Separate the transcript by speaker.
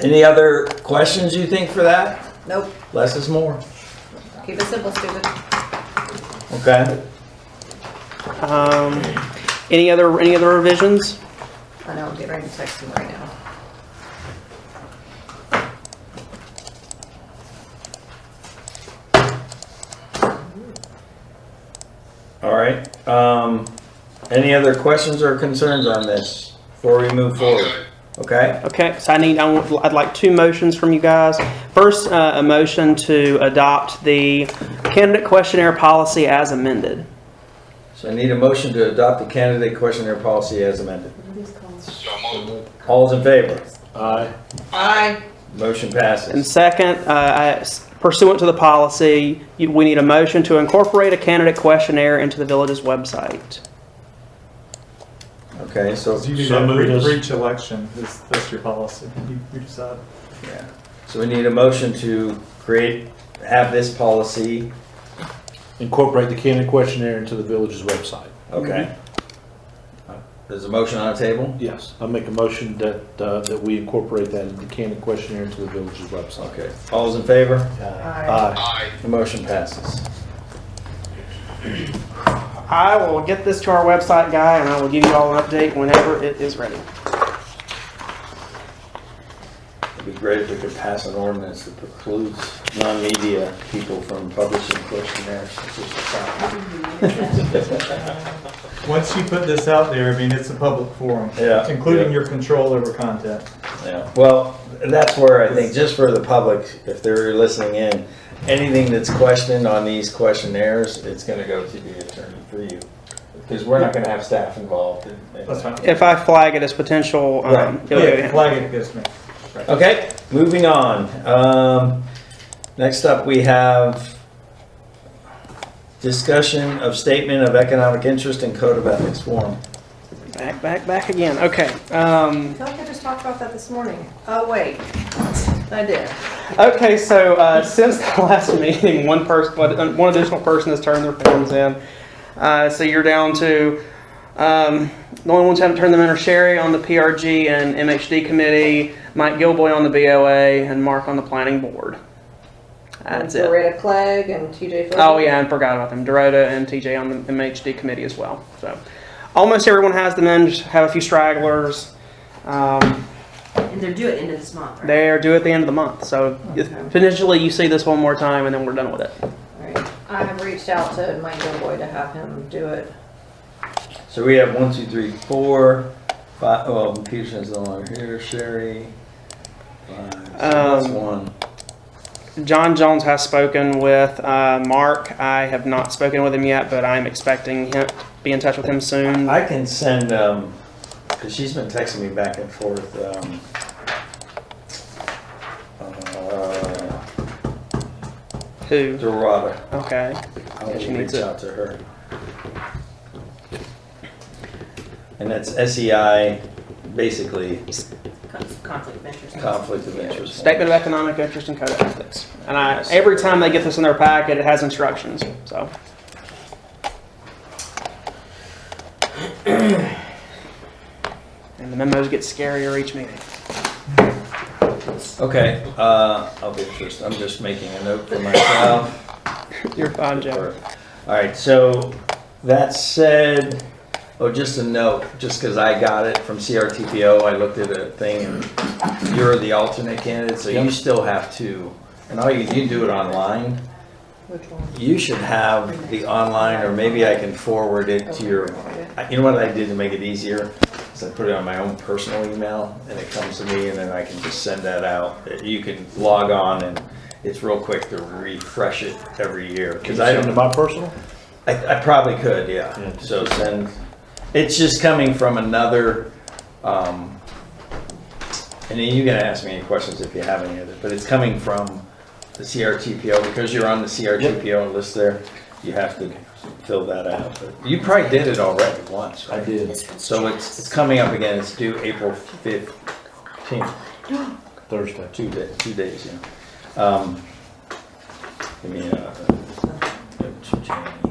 Speaker 1: Any other questions you think for that?
Speaker 2: Nope,
Speaker 1: Less is more.
Speaker 2: keep it simple, stupid.
Speaker 1: Okay.
Speaker 3: Um, any other, any other revisions?
Speaker 2: I know, I'm getting ready to text him right now.
Speaker 1: All right. Um, any other questions or concerns on this before we move forward? Okay.
Speaker 3: Okay, so I need, I want, I'd like two motions from you guys. First, uh, a motion to adopt the candidate questionnaire policy as amended.
Speaker 1: So I need a motion to adopt the candidate questionnaire policy as amended.
Speaker 4: So moved.
Speaker 1: All's in favor?
Speaker 5: Aye.
Speaker 2: Aye.
Speaker 1: Motion
Speaker 3: And
Speaker 1: passes.
Speaker 3: second, uh, I- pursuant to the policy, you- we need a motion to incorporate a candidate questionnaire into the village's website.
Speaker 1: Okay, so,
Speaker 5: You do
Speaker 6: So
Speaker 5: that
Speaker 6: moved
Speaker 5: for
Speaker 6: as-
Speaker 5: for each election, this, that's your policy, you, you decide.
Speaker 1: yeah. So we need a motion to create, have this policy.
Speaker 6: Incorporate the candidate questionnaire into the village's website.
Speaker 1: Okay. There's a motion on the table?
Speaker 6: Yes, I make a motion that, uh, that we incorporate that, the candidate questionnaire into the village's website.
Speaker 1: Okay. All's in favor?
Speaker 6: Aye.
Speaker 4: Aye.
Speaker 1: The motion passes.
Speaker 3: I will get this to our website guy and I will give you all an update whenever it is ready.
Speaker 1: It'd be great if we could pass an ordinance that precludes non-media people from publishing questionnaires. It's just a fact.
Speaker 5: Once you put this out there, I mean, it's a public forum.
Speaker 1: Yeah.
Speaker 5: Including
Speaker 1: Yeah.
Speaker 5: your control over content.
Speaker 1: Yeah. Well, that's where I think, just for the public, if they're listening in, anything that's questioned on these questionnaires, it's gonna go to the attorney for you. Because we're not gonna have staff involved. in- in-
Speaker 5: That's fine.
Speaker 3: If I flag it as potential,
Speaker 1: Right.
Speaker 3: um, it'll go
Speaker 5: Yeah,
Speaker 3: down.
Speaker 5: flag it against me.
Speaker 1: Okay, moving on. Um, next up, we have discussion of statement of economic interest and code of ethics form.
Speaker 3: Back, back, back again. Okay. Um,
Speaker 2: I feel like I just talked about that this morning. Oh, wait. I did.
Speaker 3: okay, so uh, since the last meeting, one person, one one additional person has turned their forms in. Uh, so you're down to um, the only ones who haven't turned them in are Sherry on the PRG and MHD committee, Mike Gilboy on the BOA, and Mark on the planning board. That's it.
Speaker 2: Uh, Loretta Clegg and TJ Phillips.
Speaker 3: Oh yeah, and forgot about them. Dorota and TJ on the MHD committee as well. So almost everyone has them in. Just have a few stragglers. Um,
Speaker 7: And they're due at the end of this month, right?
Speaker 3: they are due at the end of the month. So if-
Speaker 2: Okay.
Speaker 3: potentially you see this one more time and then we're done with it.
Speaker 2: Alright, I have reached out to Mike Gilboy to have him do it.
Speaker 1: So we have one, two, three, four, five, well, Peterson's no longer here, Sherry. five, so That's
Speaker 3: Um,
Speaker 1: one.
Speaker 3: John Jones has spoken with uh, Mark. I have not spoken with him yet, but I'm expecting him be in touch with him soon.
Speaker 1: I can send, um, cause she's been texting me back and forth, um, uh,
Speaker 3: Who?
Speaker 1: Dorada.
Speaker 3: Okay.
Speaker 1: I will
Speaker 3: Yeah, she needs
Speaker 1: reach
Speaker 3: it.
Speaker 1: out to her. And that's SEI, basically
Speaker 7: Con- Conflict of interest.
Speaker 1: conflict of interest.
Speaker 3: Statement of Economic Interest and Code of Ethics. And I, every time they get this in their packet, it has instructions. So. And the memos get scarier each meeting.
Speaker 1: Okay, uh, I'll be first. I'm just making a note for myself.
Speaker 3: You're fine, Joe.
Speaker 1: All right, so that said, oh, just a note, just because I got it from CRTPO, I looked at a thing and you're the alternate candidate, so you still have to, and all you, you do it online.
Speaker 2: Which one?
Speaker 1: You should have the online, or maybe I can forward it to your, I- you know what I did to make it easier? Is I put it on my own personal email and it comes to me and then I can just send that out. You can log on and it's real quick to refresh it every year.
Speaker 6: Can you
Speaker 1: Because I
Speaker 6: send
Speaker 1: don't,
Speaker 6: to my personal?
Speaker 1: I, I probably could,
Speaker 6: Yeah.
Speaker 1: yeah. So send, it's just coming from another, um, and then you can ask me any questions if you have any other, but it's coming from the CRTPO, because you're on the CRTPO list there, you have to fill that out. But You probably did it already once,
Speaker 6: I
Speaker 1: right?
Speaker 6: did,
Speaker 1: So it's, it's coming up again, it's due April fifteenth,
Speaker 6: Thursday.
Speaker 1: two da two days, yeah. Um, Give me, uh, change.